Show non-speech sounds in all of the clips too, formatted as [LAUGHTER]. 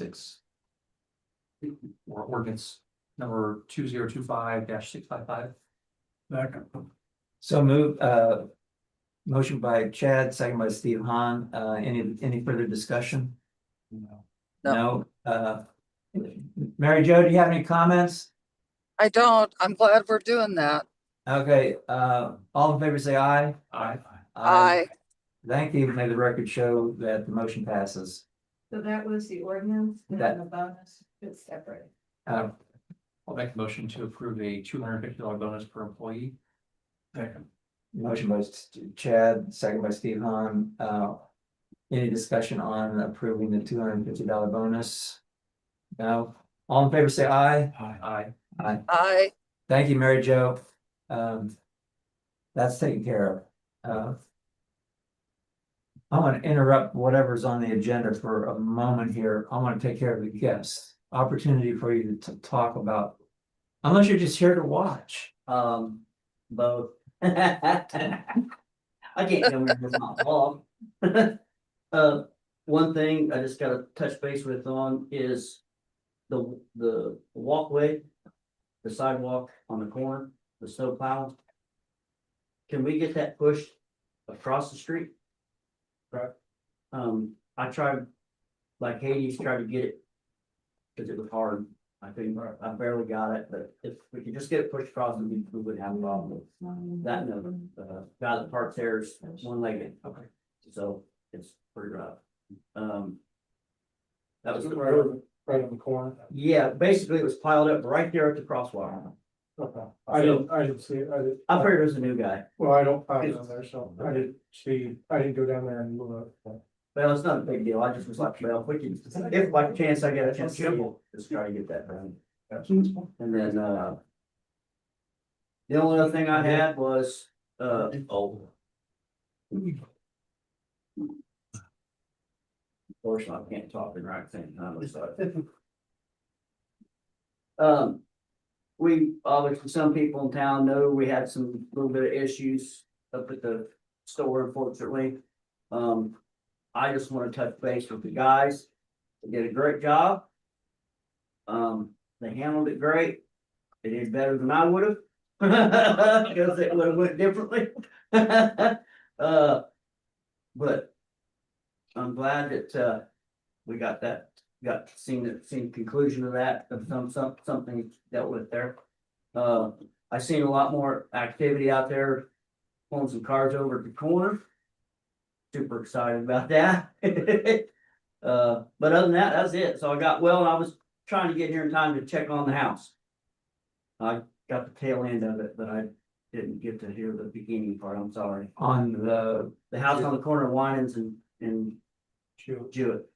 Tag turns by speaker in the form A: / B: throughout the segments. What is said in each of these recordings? A: six. Or ordinance number two zero two five six five five.
B: Second.
C: So move, uh, motion by Chad, second by Steve Han, uh, any, any further discussion? No, uh, Mary Jo, do you have any comments?
D: I don't. I'm glad we're doing that.
C: Okay, uh, all in favor, say aye.
A: Aye.
D: I,
C: Thank you, may the record show that the motion passes.
E: So that was the ordinance and
C: That-
E: then the bonus is separate.
C: Uh,
A: I'll make a motion to approve a two hundred fifty dollar bonus per employee.
B: Second.
C: motion by Chad, second by Steve Han, uh, any discussion on approving the two hundred and fifty dollar bonus? No, all in favor, say aye.
B: Aye.
A: Aye.
D: I,
C: Thank you, Mary Jo. Um, that's taken care of. Uh. I want to interrupt whatever's on the agenda for a moment here. I want to take care of the guests. Opportunity for you to t- talk about. Unless you're just here to watch.
F: Um, both. [LAUGHS] I can't tell where it's my fault. [LAUGHS] Uh, one thing I just gotta touch base with on is the, the walkway, the sidewalk on the corner, the snow plow. Can we get that pushed across the street? Right. Um, I tried, like Hades tried to get it, cause it was hard. I couldn't, I barely got it, but if we could just get it pushed across, we we wouldn't have a problem with that number, uh, guy that parks there is one legged.
A: Okay.
F: So it's pretty rough. Um. That was,
B: Right on, right on the corner.
F: yeah, basically it was piled up right there at the crosswalk.
B: Okay. I didn't, I didn't see it. I didn't.
F: I figured it was a new guy,
B: Well, I don't park down there, so I didn't see, I didn't go down there and look.
F: but it's not a big deal. I just was like, well, if we can, if by chance I get a chance, to just try to get that done.
B: Hmm.
F: And then, uh. The only other thing I had was, uh, oh. Of course, I can't talk and write things, I was like. Um, we, obviously, some people in town know we had some little bit of issues up at the store unfortunately. Um, I just wanna touch base with the guys, they did a great job. Um, they handled it great. They did better than I would have. [LAUGHS] Because it would have went differently. [LAUGHS] Uh, but I'm glad that, uh, we got that, got seen, the- seen conclusion of that, of some, some, something dealt with there. Uh, I seen a lot more activity out there, pulling some cars over at the corner. Super excited about that. [LAUGHS] Uh, but other than that, that's it. So I got, well, I was trying to get here in time to check on the house. I got the tail end of it, but I didn't get to hear the beginning part, I'm sorry.
C: On the,
F: The house on the corner of Winans and, and
B: Shoot.
F: Jewett.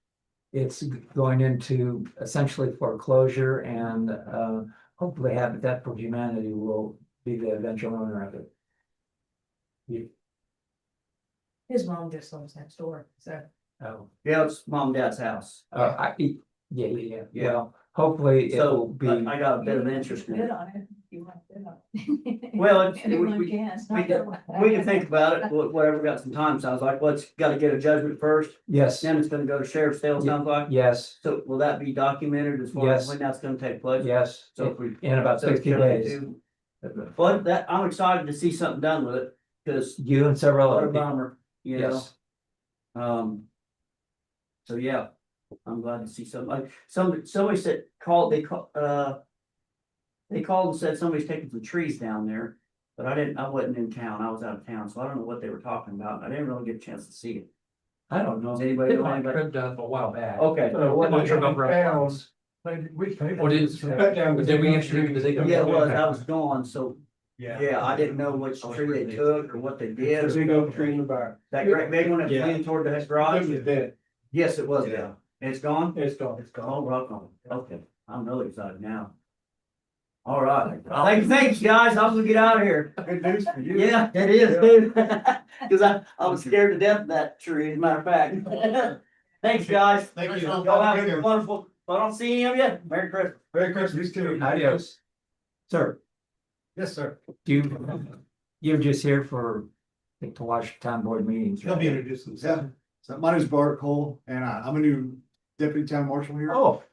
C: it's going into essentially foreclosure and, uh, hopefully Habitat for Humanity will be the eventual owner of it.
E: His mom just lives next door, so.
C: Oh.
F: Yeah, it's mom and dad's house.
C: Uh, I, yeah, yeah, yeah,
F: Yeah.
C: well, hopefully it will
F: So uh,
C: be,
F: I I got a bit of interest in
E: Bid
F: it.
E: on it, if you want to bid on it.
F: Well,
E: [LAUGHS]
F: it's- we-
E: Everyone
F: we-
E: can. it's
F: we
E: not
F: can-
E: that way.
F: We can think about it, wh- whatever got some time. Sounds like, well, it's gotta get a judgment first,
C: yes,
F: then it's gonna go to sheriff's sale, sounds like.
C: yes,
F: So will that be documented as far as
C: Yes.
F: when that's gonna take place?
C: yes,
F: So if we.
C: in about
F: so if
C: sixty
F: we
C: days.
F: do- But that, I'm excited to see something done with it, cause
C: You and several
F: What
C: other
F: a
C: people,
F: bummer, you know,
C: yes,
F: um. So, yeah, I'm glad to see somebody, some, somebody said, called, they called, uh. They called and said somebody's taking some trees down there, but I didn't, I wasn't in town, I was out of town, so I don't know what they were talking about, and I didn't really get a chance to see it.
C: I don't know.
F: Does anybody, know anybody?
A: uh, a while back.
C: Oh,
F: Okay,
B: Uh,
A: I'm not sure about
B: Pounds.
A: reference.
B: we paid.
A: Or did-
F: [LAUGHS]
B: Cut down the-
A: Did we actually- did they go-
F: yeah, well, I was gone, so,
B: Yeah.
F: yeah, I didn't know which tree they took or what they did.
B: There's a
F: or-
B: big oak tree in the back.
F: That great big one that
B: Yeah.
F: leaned toward the
B: It
F: garage,
B: was dead.
F: yes, it was, yeah, it's gone?
B: It's gone.
F: It's called rock on. Okay, I'm really excited now. All right, thanks, thanks, guys. I'm gonna get out of here.
B: Good news for you.
F: Yeah, it is, dude. [LAUGHS] Cause I, I was scared to death of that tree, as a matter of fact. [LAUGHS] Thanks, guys.
B: Thank you.
F: Y'all have a wonderful, I don't see him yet. Merry Christmas.
B: Merry Christmas to you.
C: Adios. Sir,
B: Yes, sir.
C: you, you're just here for, to watch town board meetings.
G: He'll be
C: right?
B: uh,
G: introduced himself. So my name's Bart Cole and I- I'm a new deputy town marshal here.
C: Oh.